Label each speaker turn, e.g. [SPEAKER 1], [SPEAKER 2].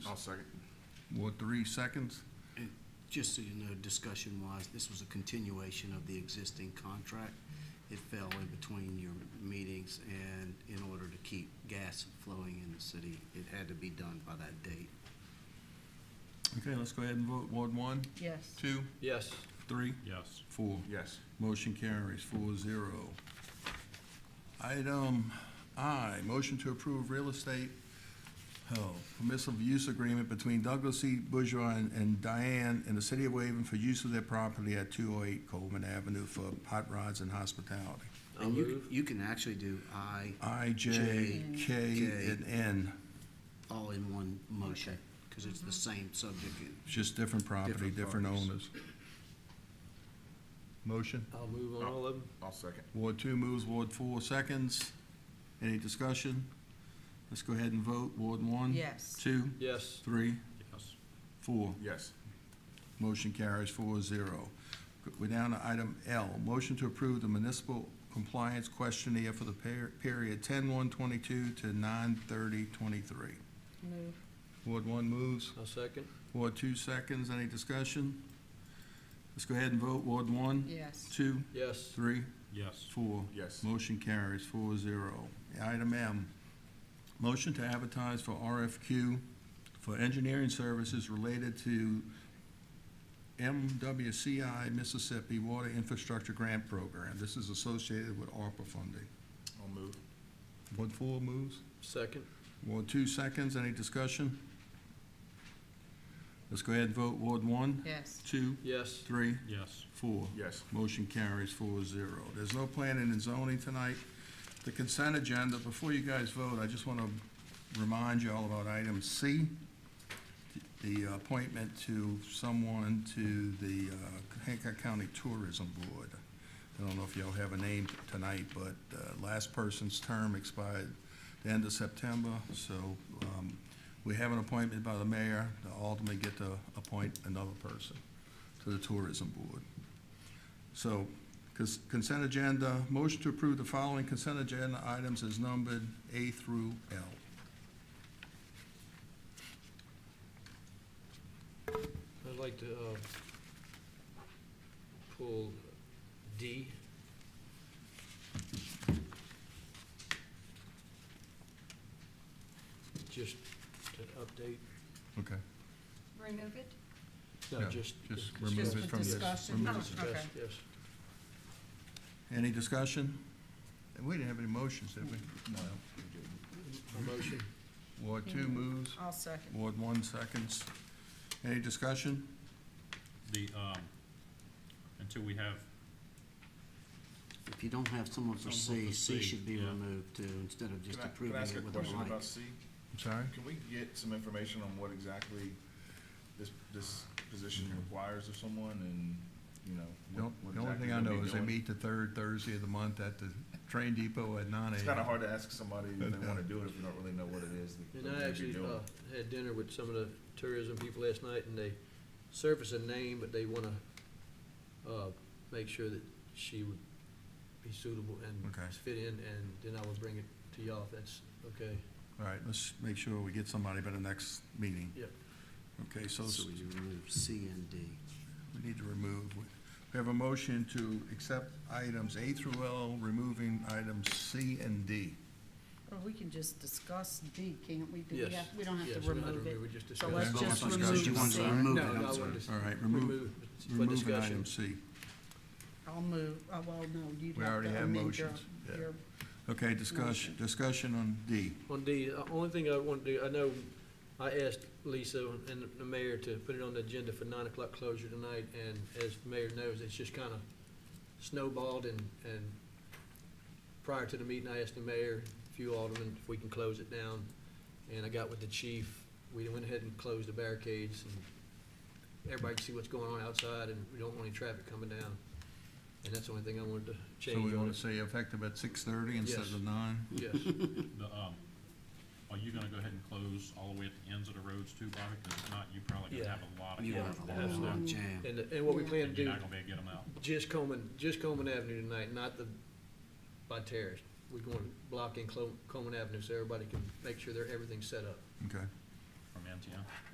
[SPEAKER 1] I'll second. What, three seconds?
[SPEAKER 2] And Just so you know, discussion-wise, this was a continuation of the existing contract. It fell in between your meetings, and in order to keep gas flowing in the city, it had to be done by that date.
[SPEAKER 3] Okay, let's go ahead and vote. Ward one,
[SPEAKER 4] Yes.
[SPEAKER 3] two,
[SPEAKER 5] Yes.
[SPEAKER 3] three,
[SPEAKER 5] Yes.
[SPEAKER 3] four.
[SPEAKER 1] Yes.
[SPEAKER 3] Motion carries four zero. Item I, motion to approve real estate, oh, permissive use agreement between Douglas C. Bourgeois and- and Diane in the city of Waven for use of their property at two oh eight Coleman Avenue for hot rods and hospitality.
[SPEAKER 5] I'll
[SPEAKER 2] And you,
[SPEAKER 5] move.
[SPEAKER 2] you can actually do I
[SPEAKER 3] I, J,
[SPEAKER 2] J,
[SPEAKER 3] K,
[SPEAKER 2] K.
[SPEAKER 3] and N,
[SPEAKER 2] all in one motion, because it's the same subject.
[SPEAKER 5] Mm-hmm.
[SPEAKER 3] It's just different property,
[SPEAKER 1] Different
[SPEAKER 3] different
[SPEAKER 1] parties.
[SPEAKER 3] owners. Motion?
[SPEAKER 5] I'll move on all of them.
[SPEAKER 1] I'll second.
[SPEAKER 3] Ward two moves, Ward four seconds. Any discussion? Let's go ahead and vote. Ward one?
[SPEAKER 4] Yes.
[SPEAKER 3] Two,
[SPEAKER 5] Yes.
[SPEAKER 3] three,
[SPEAKER 5] Yes.
[SPEAKER 3] four.
[SPEAKER 1] Yes.
[SPEAKER 3] Motion carries four zero. We're down to item L, motion to approve the municipal compliance questionnaire for the per- period ten one twenty-two to nine thirty twenty-three.
[SPEAKER 4] Move.
[SPEAKER 3] Ward one moves,
[SPEAKER 5] I'll second.
[SPEAKER 3] Ward two seconds. Any discussion? Let's go ahead and vote. Ward one,
[SPEAKER 4] Yes.
[SPEAKER 3] two,
[SPEAKER 5] Yes.
[SPEAKER 3] three,
[SPEAKER 5] Yes.
[SPEAKER 3] four.
[SPEAKER 1] Yes.
[SPEAKER 3] Motion carries four zero. Item M, motion to advertise for RFQ for engineering services related to MWCI Mississippi Water Infrastructure Grant Program. This is associated with ARPA funding.
[SPEAKER 1] I'll move.
[SPEAKER 3] Ward four moves.
[SPEAKER 5] Second.
[SPEAKER 3] Ward two seconds. Any discussion? Let's go ahead and vote. Ward one,
[SPEAKER 4] Yes.
[SPEAKER 3] two,
[SPEAKER 5] Yes.
[SPEAKER 3] three,
[SPEAKER 5] Yes.
[SPEAKER 3] four.
[SPEAKER 1] Yes.
[SPEAKER 3] Motion carries four zero. There's no planning and zoning tonight. The consent agenda, before you guys vote, I just want to remind you all about item C, the appointment to someone to the uh, Hancock County Tourism Board. I don't know if y'all have a name tonight, but uh, last person's term expired the end of September, so um, we have an appointment by the mayor to ultimately get to appoint another person to the Tourism Board. So, cons- consent agenda, motion to approve the following consent agenda items is numbered A through L.
[SPEAKER 5] I'd like to, uh, pull D. Just to update,
[SPEAKER 3] Okay.
[SPEAKER 6] Remove it?
[SPEAKER 5] no,
[SPEAKER 3] Yeah,
[SPEAKER 5] just.
[SPEAKER 3] just
[SPEAKER 5] discuss-
[SPEAKER 3] remove
[SPEAKER 4] Just
[SPEAKER 3] it
[SPEAKER 4] for
[SPEAKER 3] from this.
[SPEAKER 4] discussion.
[SPEAKER 5] Yes,
[SPEAKER 4] Oh,
[SPEAKER 5] discuss,
[SPEAKER 4] okay.
[SPEAKER 5] Yes.
[SPEAKER 3] Any discussion? And We didn't have any motions, did we? No.
[SPEAKER 5] A motion.
[SPEAKER 3] Ward two
[SPEAKER 4] Mm-hmm.
[SPEAKER 3] moves,
[SPEAKER 4] I'll second.
[SPEAKER 3] Ward one seconds. Any discussion?
[SPEAKER 7] The, um, until we have,
[SPEAKER 2] If you don't have someone for
[SPEAKER 7] Someone
[SPEAKER 2] C,
[SPEAKER 7] for
[SPEAKER 2] C
[SPEAKER 7] C,
[SPEAKER 2] should be
[SPEAKER 7] yeah.
[SPEAKER 2] removed too, instead of just
[SPEAKER 1] Can I,
[SPEAKER 2] approving
[SPEAKER 1] can I ask a
[SPEAKER 2] it with a
[SPEAKER 1] question about
[SPEAKER 2] blank.
[SPEAKER 1] C?
[SPEAKER 3] I'm sorry?
[SPEAKER 1] Can we get some information on what exactly this, this position requires of someone and, you know?
[SPEAKER 3] Mm-hmm. The
[SPEAKER 1] what-
[SPEAKER 3] on-
[SPEAKER 1] what
[SPEAKER 3] the only
[SPEAKER 1] exactly
[SPEAKER 3] thing I
[SPEAKER 1] they'll
[SPEAKER 3] know
[SPEAKER 1] be
[SPEAKER 3] is they
[SPEAKER 1] doing?
[SPEAKER 3] meet the third Thursday of the month at the train depot at nine AM.
[SPEAKER 1] It's kinda hard to ask somebody if they wanna do it if we don't really know what it is that
[SPEAKER 5] And
[SPEAKER 1] they're
[SPEAKER 5] I
[SPEAKER 1] gonna be
[SPEAKER 5] actually, uh,
[SPEAKER 1] doing.
[SPEAKER 5] had dinner with some of the tourism people last night, and they surfaced a name, but they wanna, uh, make sure that she would be suitable and
[SPEAKER 3] Okay.
[SPEAKER 5] fit in, and then I will bring it to y'all if that's okay.
[SPEAKER 3] All right, let's make sure we get somebody by the next meeting.
[SPEAKER 5] Yep.
[SPEAKER 3] Okay, so
[SPEAKER 2] So you remove C and D.
[SPEAKER 3] we need to remove. We have a motion to accept items A through L, removing items C and D.
[SPEAKER 4] Or we can just discuss D, can't we? Do we
[SPEAKER 5] Yes.
[SPEAKER 4] have- We don't have
[SPEAKER 5] Yes,
[SPEAKER 4] to
[SPEAKER 5] we're not
[SPEAKER 4] remove
[SPEAKER 5] removing,
[SPEAKER 4] it.
[SPEAKER 5] we're just
[SPEAKER 4] So let's
[SPEAKER 5] discussing.
[SPEAKER 4] just
[SPEAKER 3] Discuss.
[SPEAKER 4] remove
[SPEAKER 2] You want to
[SPEAKER 4] C.
[SPEAKER 2] remove it,
[SPEAKER 5] No,
[SPEAKER 2] I'm
[SPEAKER 5] no, I
[SPEAKER 2] sorry.
[SPEAKER 5] wanted to.
[SPEAKER 3] All right, remove,
[SPEAKER 5] it for
[SPEAKER 3] removing
[SPEAKER 5] discussion.
[SPEAKER 3] item C.
[SPEAKER 4] I'll move, oh, well, no, you'd
[SPEAKER 3] We
[SPEAKER 4] have
[SPEAKER 3] already
[SPEAKER 4] to
[SPEAKER 3] have
[SPEAKER 4] amend your,
[SPEAKER 3] motions. Yeah.
[SPEAKER 4] your,
[SPEAKER 3] Okay, discussion, discussion on D.
[SPEAKER 5] On D, the only thing I want to do, I know I asked Lisa and the mayor to put it on the agenda for nine o'clock closure tonight, and as the mayor knows, it's just kind of snowballed and, and prior to the meeting, I asked the mayor, a few aldermen, if we can close it down, and I got with the chief. We went ahead and closed the barricades, and everybody can see what's going on outside, and we don't want any traffic coming down. And that's the only thing I wanted to
[SPEAKER 3] So
[SPEAKER 5] change
[SPEAKER 3] we
[SPEAKER 5] on
[SPEAKER 3] want to
[SPEAKER 5] it.
[SPEAKER 3] say effective at six-thirty instead
[SPEAKER 5] Yes.
[SPEAKER 3] of nine?
[SPEAKER 5] Yes,
[SPEAKER 7] the, um, are you gonna go ahead and close all the way at the ends of the roads too, Bobby? Cause if not, you probably
[SPEAKER 5] Yeah.
[SPEAKER 7] gonna have a lot of.
[SPEAKER 2] You
[SPEAKER 5] Yeah,
[SPEAKER 2] have a
[SPEAKER 5] that's
[SPEAKER 2] lot
[SPEAKER 5] not-
[SPEAKER 2] of jam.
[SPEAKER 5] and, and what we plan to
[SPEAKER 7] And you're
[SPEAKER 5] do.
[SPEAKER 7] not gonna be able to get them out.
[SPEAKER 5] Just Coleman, just Coleman Avenue tonight, not the, by Terrace. We're going to block in Clo- Coleman Avenue so everybody can make sure they're, everything's set up.
[SPEAKER 3] Okay,
[SPEAKER 7] From end yeah?